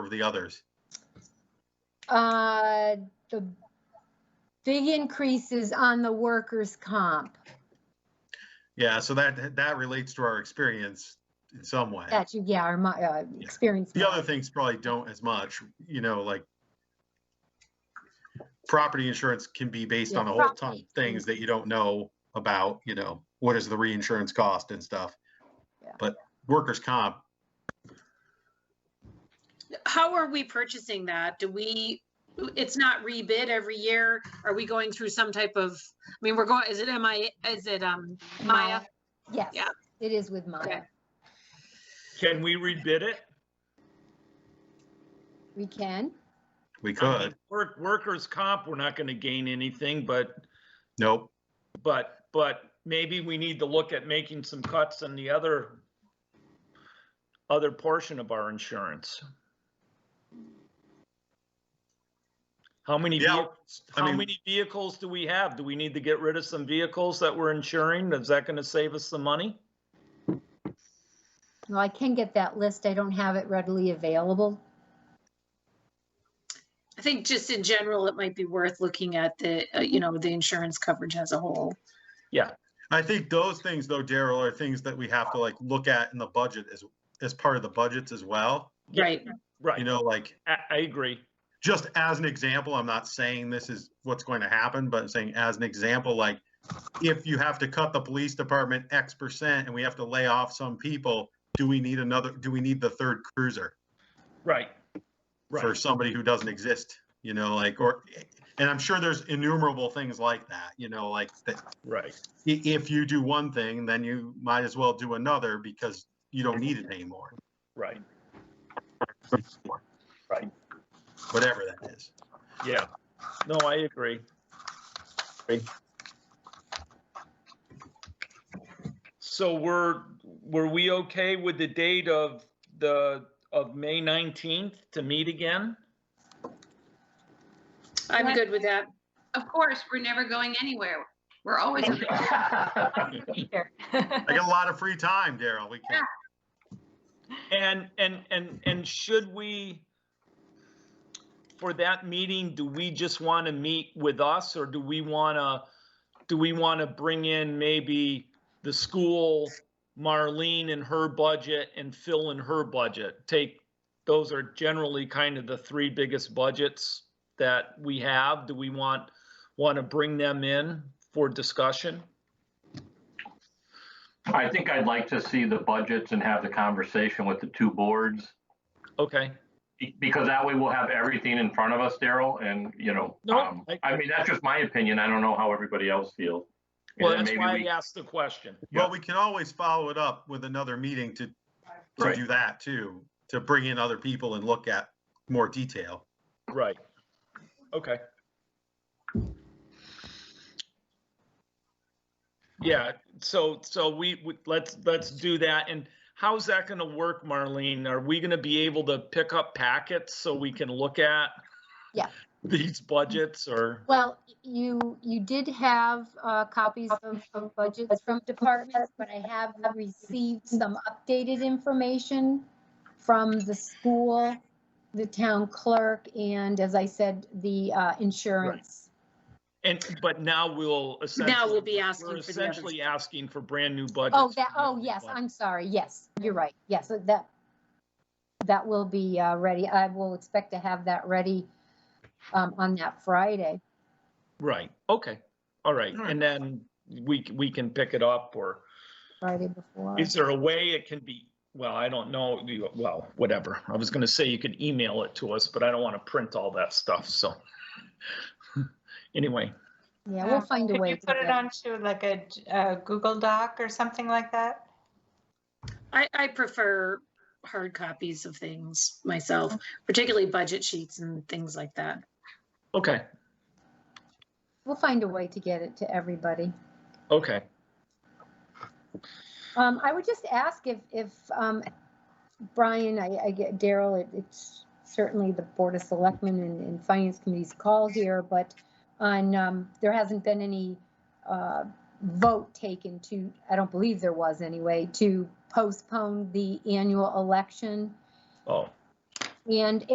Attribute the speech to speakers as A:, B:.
A: of the others?
B: Uh, the big increase is on the workers' comp.
A: Yeah, so that, that relates to our experience in some way.
B: That you, yeah, or my, uh, experience.
A: The other things probably don't as much, you know, like property insurance can be based on a
B: Yeah,
A: whole ton of
B: property.
A: things that you don't know about, you know, what is the reinsurance cost and stuff.
B: Yeah.
A: But workers' comp,
C: How are we purchasing that? Do we, it's not rebid every year? Are we going through some type of, I mean, we're going, is it MI, is it, um, Maya?
B: Yes,
C: Yeah.
B: it is with Maya.
C: Okay.
D: Can we rebid it?
B: We can.
A: we
D: I mean,
A: could,
D: Work, workers' comp, we're not gonna gain anything, but,
A: nope,
D: but, but maybe we need to look at making some cuts in the other, other portion of our insurance. How many,
A: Yeah,
D: vehi-
A: I
D: how
A: mean-
D: many vehicles do we have? Do we need to get rid of some vehicles that we're insuring? Is that gonna save us some money?
B: Well, I can get that list. I don't have it readily available.
C: I think just in general, it might be worth looking at the, uh, you know, the insurance coverage as a whole.
A: I think those things though, Daryl, are things that we have to like look at in the budget as, as part of the budgets as well.
D: Yeah,
C: Right,
A: You
D: Right,
A: know, like,
D: I, I agree.
A: just as an example, I'm not saying this is what's going to happen, but I'm saying as an example, like if you have to cut the police department X percent and we have to lay off some people, do we need another, do we need the third cruiser
D: Right.
A: for
D: Right.
A: somebody who doesn't exist? You know, like, or, and I'm sure there's innumerable things like that, you know, like that
D: Right.
A: i- if you do one thing, then you might as well do another because you don't need it anymore,
D: Right.
A: whatever that is.
D: Yeah. No, I agree. So we're, were we okay with the date of the, of May 19th to meet again?
C: I'm good with that.
E: Of course, we're never going anywhere. We're always. here.
A: I got a lot of free time, Daryl. We can,
D: And, and, and, and should we, for that meeting, do we just want to meet with us or do we want to, do we want to bring in maybe the school, Marlene and her budget and Phil and her budget? Take, those are generally kind of the three biggest budgets that we have. Do we want, want to bring them in for discussion?
F: I think I'd like to see the budgets and have the conversation with the two boards.
D: Okay,
F: be- Because that way we'll have everything in front of us, Daryl, and, you know,
D: No,
F: um,
D: I-
F: I mean, that's just my opinion. I don't know how everybody else feels. And
D: well,
F: then
D: that's
F: maybe
D: why I
F: we-
D: asked the question.
A: well,
F: Yeah.
A: we can always follow it up with another meeting to to
D: Right.
A: do that too, to bring in other people and look at more detail.
D: Right. Okay. Yeah, so, so we, we- let's, let's do that. And how's that gonna work, Marlene? Are we gonna be able to pick up packets so we can look at?
B: Yeah.
D: These budgets or,
B: Well, you, you did have uh, copies of of budgets from departments, but I have received some updated information from the school, the town clerk, and as I said, the uh, insurance.
D: and, but now we'll essentially.
C: Now we'll be
D: We're
C: asking for the others.
D: essentially asking for brand new budgets.
B: Oh, that,
D: for
B: oh,
D: new
B: yes,
D: budgets.
B: I'm sorry, yes, you're right, yes, so that, that will be uh, ready, I will expect to have that ready um, on that Friday.
D: Right, okay, all right.
A: All right.
D: And then we, c- we can pick it up or.
B: Friday before.
D: Is there a way it can be, well, I don't know, you- well, whatever. I was gonna say you could email it to us, but I don't wanna print all that stuff, so. Anyway,
B: Yeah, we'll find a
E: uh, Could
B: way.
E: you
B: to
E: put
B: get
E: it onto like a uh, Google Doc or something like that?
C: I, I prefer hard copies of things myself, particularly budget sheets and things like that.
D: okay,
B: We'll find a way to get it to everybody.
D: okay,
B: Um, I would just ask if, if, um, Brian, I, I get Daryl, it- it's certainly the Board of Selectmen and, and Finance Committee's call here, but on, um, there hasn't been any, uh, vote taken to, I don't believe there was anyway, to postpone the annual election.
D: oh.
B: And